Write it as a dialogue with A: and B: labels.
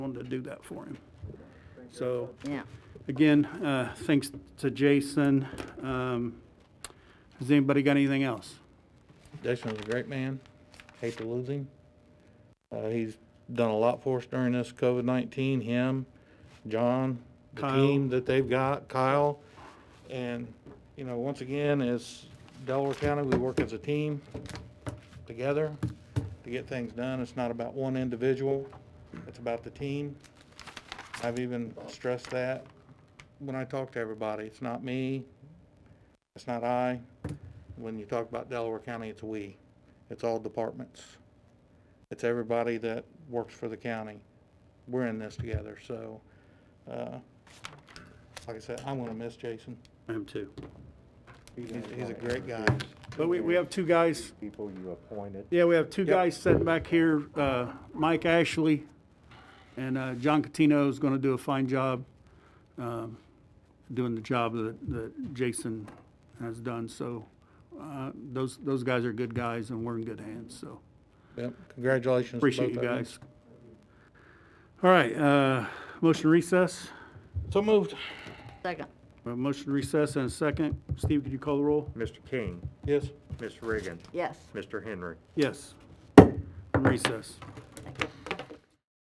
A: someone to do that for him. So,
B: Yeah.
A: again, uh, thanks to Jason. Um, Has anybody got anything else?
C: Jason was a great man. Hate to lose him. Uh, he's done a lot for us during this COVID nineteen. Him, John, the
A: Kyle.
C: team that they've got, Kyle, and you know, once again, as Delaware County, we work as a team together to get things done. It's not about one individual. It's about the team. I've even stressed that when I talk to everybody. It's not me. It's not I. When you talk about Delaware County, it's we. It's all departments. It's everybody that works for the county. We're in this together, so, uh, like I said, I'm gonna miss Jason.
A: I am too.
C: He's, he's a great guy.
A: But we, we have two guys,
D: People you appointed.
A: yeah, we have two
C: Yep.
A: guys sitting back here, uh, Mike Ashley and uh, John Catino is going to do a fine job um, doing the job that, that Jason has done. So uh, those, those guys are good guys and we're in good hands, so.
C: Yep, congratulations. to
A: Appreciate you
C: both of
A: guys. All right, uh, motion recess.
C: So moved.
B: Second.
A: We have a motion recess and a second. Steve, could you call the roll?
D: Mr. King,
C: Yes.
D: Miss Reagan,
B: Yes.
D: Mr. Henry.
A: Yes. Recess.